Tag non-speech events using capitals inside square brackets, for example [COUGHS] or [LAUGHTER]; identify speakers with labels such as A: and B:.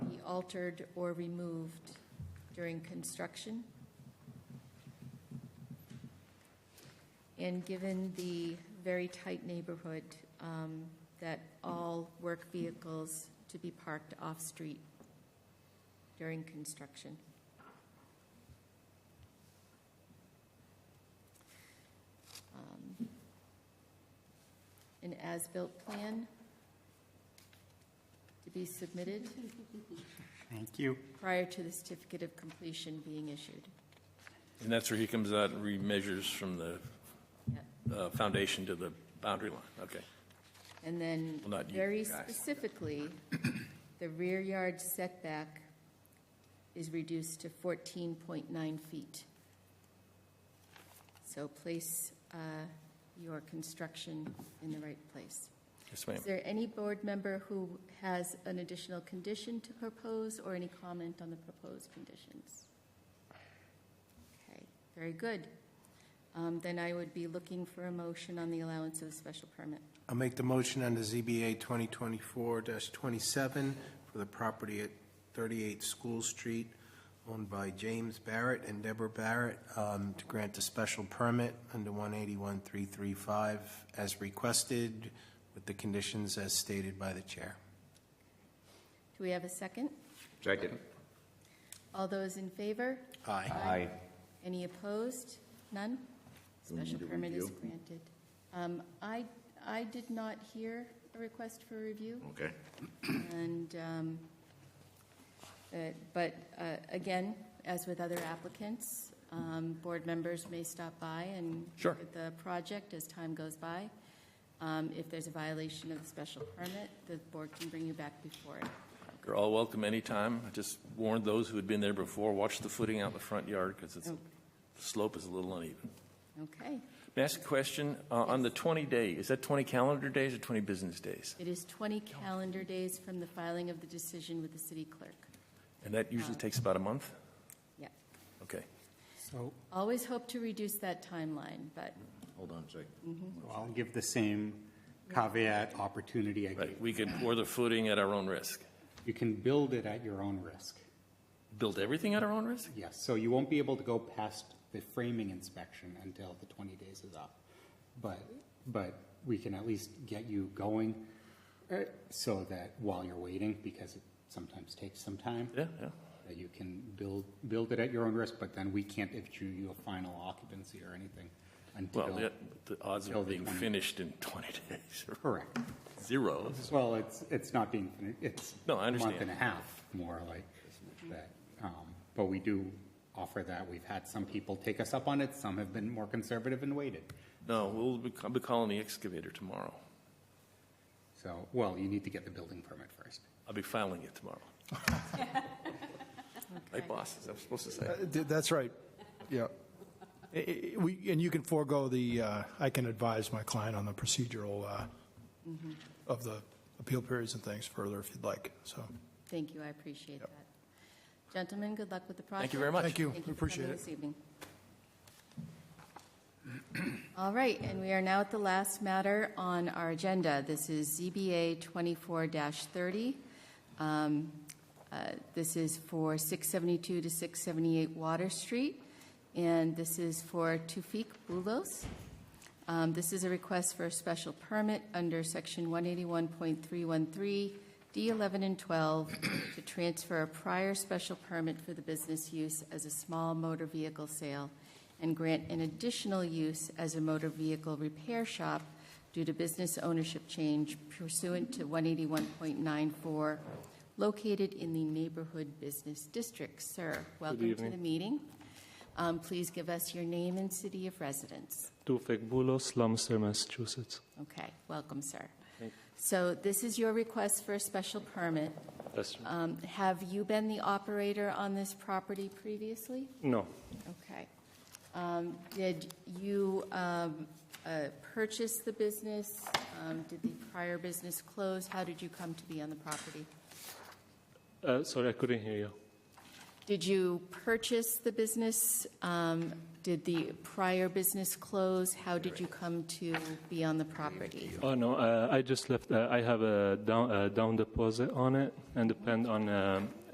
A: altered or removed during construction. And given the very tight neighborhood, um, that all work vehicles to be parked off-street during construction. Um, An as-built plan to be submitted
B: Thank you.
A: prior to the certificate of completion being issued.
C: And that's where he comes out and remeasures from the
A: Yep.
C: uh, foundation to the boundary line. Okay.
A: And then,
C: Well, not you
A: very
C: guys. [COUGHS]
A: specifically, the rear yard setback is reduced to 14.9 feet. So place uh, your construction in the right place.
C: Yes, ma'am.
A: Is there any board member who has an additional condition to propose or any comment on the proposed conditions? Okay, very good. Um, Then I would be looking for a motion on the allowance of a special permit.
B: I'll make the motion under ZBA 2024-27 for the property at 38 School Street, owned by James Barrett and Deborah Barrett, um, to grant a special permit under 181-335 as requested, with the conditions as stated by the chair.
A: Do we have a second?
D: Second.
A: All those in favor?
B: Aye.
D: Aye.
A: Any opposed? None? Special permit is granted. Um, I, I did not hear a request for review,
D: Okay.
A: and, um, uh, but uh, again, as with other applicants, um, board members may stop by and
C: Sure.
A: look at the project as time goes by. Um, If there's a violation of the special permit, the board can bring you back before it.
C: You're all welcome anytime. I just warned those who had been there before, watch the footing out in the front yard because it's, the
A: Oh.
C: slope is a little uneven.
A: Okay,
C: May I ask a question? Uh, On the 20 day, is that 20 calendar days or 20 business days?
A: it is 20 calendar days from the filing of the decision with the city clerk.
C: And that usually takes about a month?
A: Yeah.
C: Okay.
B: So
A: Always hope to reduce that timeline, but
D: Hold on a second.
E: I'll give the same caveat opportunity I
C: Right.
E: gave.
C: We could pour the footing at our own risk.
E: You can build it at your own risk.
C: Build everything at our own risk?
E: Yes, so you won't be able to go past the framing inspection until the 20 days is up. But, but we can at least get you going uh, so that while you're waiting, because it sometimes takes some time,
C: Yeah, yeah.
E: that you can build, build it at your own risk, but then we can't issue you a final occupancy or anything
C: Well,
E: until,
C: the- the odds of
E: Build
C: it
E: the
C: being
E: 20.
C: finished in 20 [LAUGHS] days are
E: correct.
C: zero.
E: Well, it's, it's not being, fin- it's.
C: No, I
E: A
C: understand.
E: month and a half, more like that. Um, But we do offer that. We've had some people take us up on it. Some have been more conservative and waited.
C: No, we'll be, I'll be calling the excavator tomorrow.
E: So, well, you need to get the building permit first.
C: I'll be filing it tomorrow. Like bosses, I'm supposed to say.
F: Uh, th- That's right. Yeah. I- I- We, and you can forego the, uh, I can advise my client on the procedural uh,
A: Mm-hmm.
F: of the appeal periods and things further if you'd like, so.
A: thank you, I appreciate that. Gentlemen, good luck with the project.
C: Thank you very much.
F: Thank you,
A: Thank
F: We
A: you for
F: appreciate
A: coming
F: it.
A: this evening. [CLEARS THROAT] All right, and we are now at the last matter on our agenda. This is ZBA 24-30. Um, uh, This is for 672 to 678 Water Street, and this is for Tufik Bulos. Um, This is a request for a special permit under Section 181.313, D11 and 12, to transfer a prior special permit for the business use as a small motor vehicle sale and grant an additional use as a motor vehicle repair shop due to business ownership change pursuant to 181.94, located in the Neighborhood Business District. Sir, welcome to the meeting. Um, Please give us your name and city of residence.
G: Tufek Bulos, Lumsden, Massachusetts.
A: Okay, welcome, sir. So this is your request for a special permit.
G: That's right.
A: Um, Have you been the operator on this property previously?
G: No,
A: Okay. Um, Did you um, uh, purchase the business? Um, Did the prior business close? How did you come to be on the property?
G: uh, sorry, I couldn't hear you.
A: Did you purchase the business? Um, Did the prior business close? How did you come to be on the property?
G: Oh no, uh, I just left. Uh, I have a down, uh, down deposit on it and depend on um,